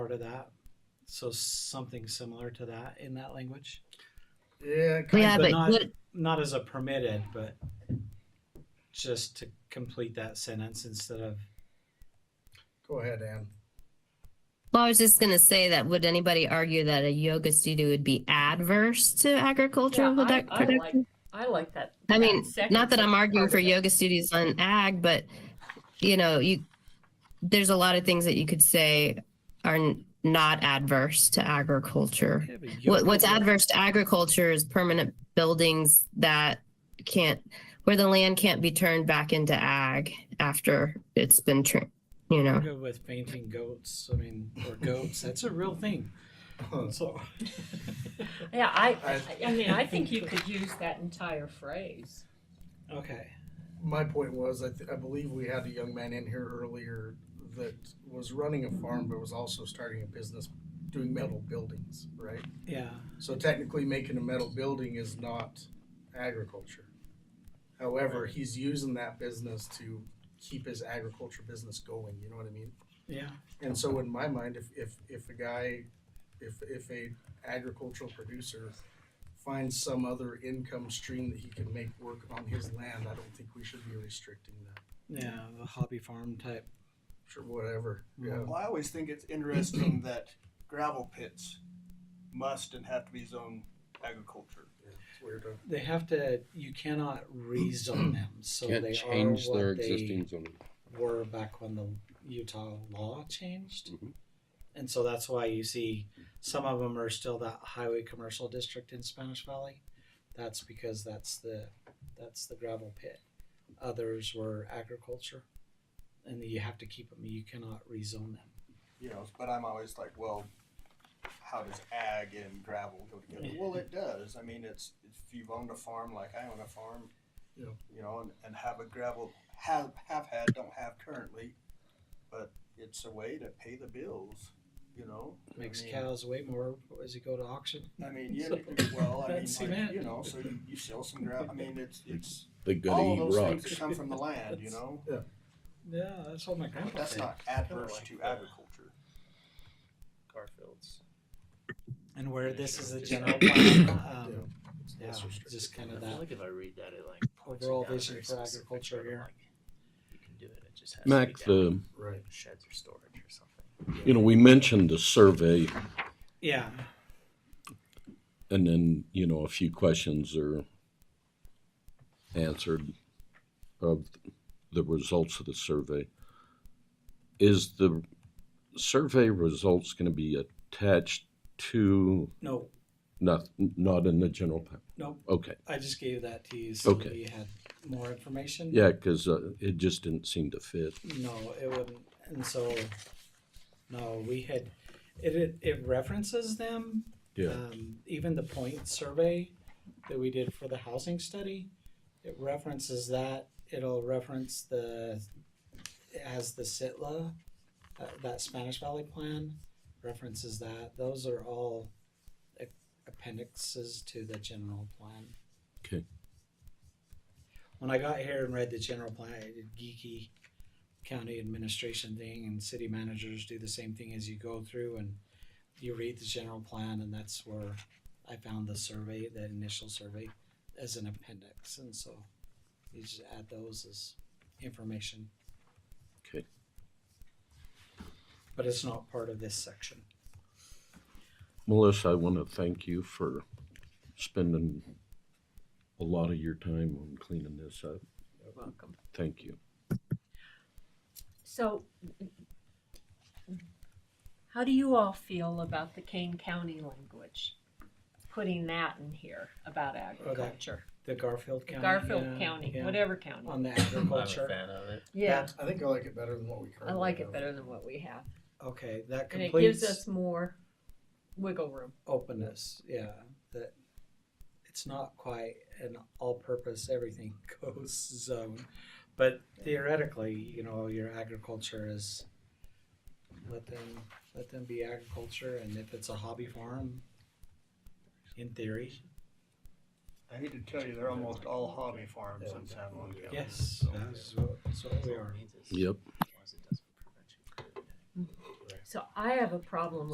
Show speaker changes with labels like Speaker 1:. Speaker 1: part of that? So something similar to that in that language?
Speaker 2: Yeah, kind
Speaker 3: Yeah,
Speaker 2: of.
Speaker 1: but
Speaker 3: but
Speaker 1: not-
Speaker 3: what,
Speaker 1: Not as a permitted, but just to complete that sentence instead of,
Speaker 2: Go ahead, Ann.
Speaker 3: well, I was just gonna say that, would anybody argue that a yoga studio would be adverse to agricultural
Speaker 4: Yeah, I-
Speaker 3: product-
Speaker 4: I like-
Speaker 3: production?
Speaker 4: I like that.
Speaker 3: I mean,
Speaker 4: second
Speaker 3: not that I'm arguing
Speaker 4: part
Speaker 3: for
Speaker 4: of it.
Speaker 3: yoga studios on ag, but you know, you, there's a lot of things that you could say are n- not adverse to agriculture. What, what's adverse to agriculture is permanent buildings that can't, where the land can't be turned back into ag after it's been, tr- you know.
Speaker 1: Go with fainting goats, I mean, or goats, that's a real thing. So,
Speaker 4: Yeah, I,
Speaker 2: I-
Speaker 4: I, I mean, I think you could use that entire phrase.
Speaker 1: okay,
Speaker 2: My point was, I, th- I believe we had a young man in here earlier that was running a farm, but was also starting a business doing metal buildings, right?
Speaker 1: yeah,
Speaker 2: So technically, making a metal building is not agriculture. However, he's using that business to keep his agriculture business going. You know what I mean?
Speaker 1: yeah,
Speaker 2: And so in my mind, if, if, if a guy, if, if a agricultural producer finds some other income stream that he can make work on his land, I don't think we should be restricting that.
Speaker 1: yeah, the hobby farm type.
Speaker 2: Sure, whatever, yeah.
Speaker 5: Well, I always think it's interesting that gravel pits must and have to be zoned agriculture.
Speaker 2: It's weird, huh?
Speaker 1: They have to, you cannot rezone them, so
Speaker 6: Can't
Speaker 1: they
Speaker 6: change
Speaker 1: are what
Speaker 6: their
Speaker 1: they
Speaker 6: existing zoning.
Speaker 1: were back when the Utah law changed.
Speaker 7: Mm-hmm.
Speaker 6: Mhm.
Speaker 1: And so that's why you see some of them are still that highway commercial district in Spanish Valley. That's because that's the that's the gravel pit. Others were agriculture, and you have to keep them. You cannot rezone them.
Speaker 5: You know, but I'm always like, well, how does ag and gravel go together? Well, it does. I mean, it's if you've owned a farm like I own a farm,
Speaker 2: Yeah.
Speaker 5: you know, and, and have a gravel have have had don't have currently, but it's a way to pay the bills. You know,
Speaker 7: Oh,
Speaker 1: Makes
Speaker 5: I mean,
Speaker 1: cows way more as you go to auction.
Speaker 5: I mean, yeah, well, I mean,
Speaker 1: That's
Speaker 5: like,
Speaker 1: cement.
Speaker 5: you know, so you, you sell some gravel. I mean, it's it's
Speaker 6: They gotta
Speaker 5: all
Speaker 6: eat
Speaker 5: those things
Speaker 6: rocks.
Speaker 5: that come from the land. You know.
Speaker 1: Yeah, that's what my
Speaker 5: But
Speaker 1: grandpa
Speaker 5: That's
Speaker 1: said.
Speaker 5: not adverse to
Speaker 7: Yeah.
Speaker 5: agriculture.
Speaker 7: Garfield's.
Speaker 1: And where this is a general plan, um,
Speaker 2: It's
Speaker 1: yeah,
Speaker 2: less restricted.
Speaker 1: just kind
Speaker 7: I
Speaker 1: of
Speaker 7: feel
Speaker 1: that.
Speaker 7: like if I read that, it like points it
Speaker 1: Overall
Speaker 7: down
Speaker 1: vision
Speaker 7: very
Speaker 1: for
Speaker 7: specific,
Speaker 1: agriculture
Speaker 7: sort of
Speaker 1: here.
Speaker 7: like, You can do it, it just has to be
Speaker 6: Max,
Speaker 7: down
Speaker 6: the,
Speaker 2: Right,
Speaker 7: in Sheds or storage or something.
Speaker 6: you know, we mentioned the survey
Speaker 1: Yeah,
Speaker 6: and then, you know, a few questions are answered of the results of the survey. Is the survey results gonna be attached to,
Speaker 1: no,
Speaker 6: not, not in the general plan?
Speaker 1: no.
Speaker 6: Okay,
Speaker 1: I just gave that to you so
Speaker 6: Okay.
Speaker 1: you had more information.
Speaker 6: yeah, cause uh, it just didn't seem to fit.
Speaker 1: No, it wouldn't. And so, no, we had it. It, it references them. Um, even the point survey that we did for the housing study, it references that. It'll reference the it has the Sitla, uh, that Spanish Valley plan references that. Those are all a- appendixes to the general plan.
Speaker 6: Okay.
Speaker 1: When I got here and read the general plan, I did geeky county administration thing, and city managers do the same thing as you go through and you read the general plan, and that's where I found the survey, that initial survey, as an appendix, and so you just add those as information.
Speaker 6: Okay.
Speaker 1: But it's not part of this section.
Speaker 6: Melissa, I want to thank you for spending a lot of your time on cleaning this up.
Speaker 4: You're welcome.
Speaker 6: Thank you.
Speaker 4: So, how do you all feel about the Kane County language? Putting that in here about agriculture,
Speaker 1: The Garfield County.
Speaker 4: Garfield
Speaker 1: yeah,
Speaker 4: County,
Speaker 1: yeah,
Speaker 4: whatever county.
Speaker 1: On the
Speaker 7: I'm a
Speaker 1: agriculture.
Speaker 7: fan of it.
Speaker 4: Yeah,
Speaker 2: I think I like it better than what we
Speaker 4: I
Speaker 2: currently.
Speaker 4: like it
Speaker 2: have.
Speaker 4: better than what we have.
Speaker 1: Okay, that
Speaker 4: And it gives
Speaker 1: completes
Speaker 4: us more wiggle room.
Speaker 1: openness, yeah, that it's not quite an all-purpose everything goes zone. But theoretically, you know, your agriculture is, let them, let them be agriculture, and if it's a hobby farm, in theory,
Speaker 5: I hate to tell you, they're almost all hobby farms in San Juan County.
Speaker 1: yes, that's what, that's what we are.
Speaker 6: Yep.
Speaker 7: As long as it doesn't prevent you from doing it.
Speaker 4: So I have a problem with.